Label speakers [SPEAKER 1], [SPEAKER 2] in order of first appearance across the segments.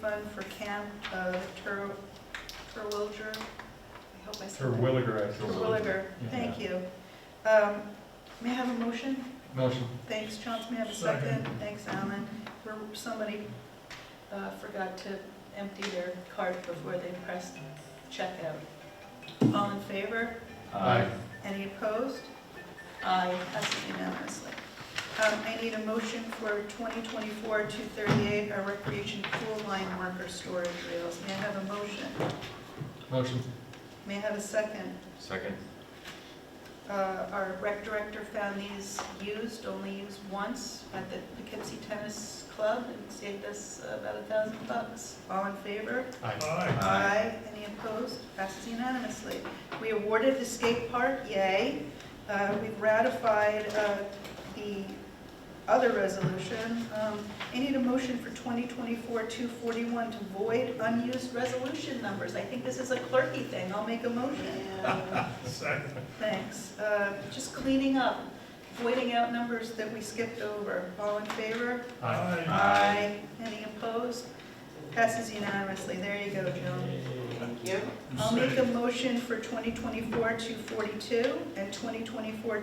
[SPEAKER 1] fund for Camp uh, Ter- Terwilliger. I hope I said
[SPEAKER 2] Sir
[SPEAKER 1] that.
[SPEAKER 2] Williger, actually.
[SPEAKER 1] Terwilliger,
[SPEAKER 2] Yeah.
[SPEAKER 1] thank you. Um, May I have a motion?
[SPEAKER 2] Motion.
[SPEAKER 1] Thanks, Chauncey, may I have a second?
[SPEAKER 2] Second.
[SPEAKER 1] Thanks, Alan. Where Somebody uh, forgot to empty their cart before they pressed checkout. All in favor?
[SPEAKER 2] Aye.
[SPEAKER 1] Any opposed? Aye, passes unanimously. Um, I need a motion for 2024-238, our recreation pool line marker storage rails. May I have a motion?
[SPEAKER 2] Motion.
[SPEAKER 1] May I have a second?
[SPEAKER 3] Second.
[SPEAKER 1] Uh, Our rec director found these used, only used once at the Poughkeepsie Tennis Club, and saved us about a thousand bucks. All in favor?
[SPEAKER 2] Aye.
[SPEAKER 1] Aye. Any opposed? Passes unanimously. We awarded the skate park, yay. Uh, We've ratified uh, the other resolution. Um, I need a motion for 2024-241 to void unused resolution numbers. I think this is a clerky thing. I'll make a motion. Thanks. Uh, Just cleaning up, voiding out numbers that we skipped over. All in favor?
[SPEAKER 2] Aye.
[SPEAKER 1] Aye. Any opposed? Passes unanimously. There you go, Joan.
[SPEAKER 4] Thank you.
[SPEAKER 1] I'll make a motion for 2024-242 and 2024-243 for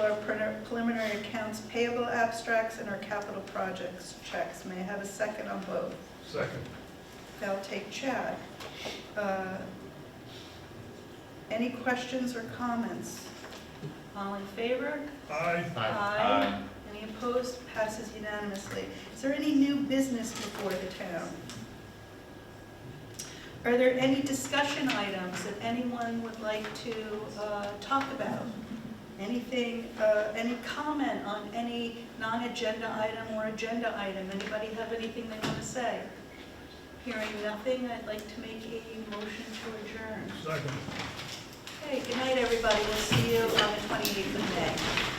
[SPEAKER 1] our preliminary- preliminary accounts payable abstracts and our capital projects checks. May I have a second on both?
[SPEAKER 4] Second.
[SPEAKER 1] I'll take Chad. Uh, Any questions or comments? All in favor?
[SPEAKER 4] Aye.
[SPEAKER 1] Aye. Any opposed? Passes unanimously. Is there any new business before the town? Are there any discussion items that anyone would like to uh, talk about? Anything, uh, any comment on any non-agenda item or agenda item? Anybody have anything they want to say? Hearing nothing, I'd like to make a motion to adjourn.
[SPEAKER 4] Second.
[SPEAKER 1] Okay, good night, everybody. We'll see you on the 28th of May.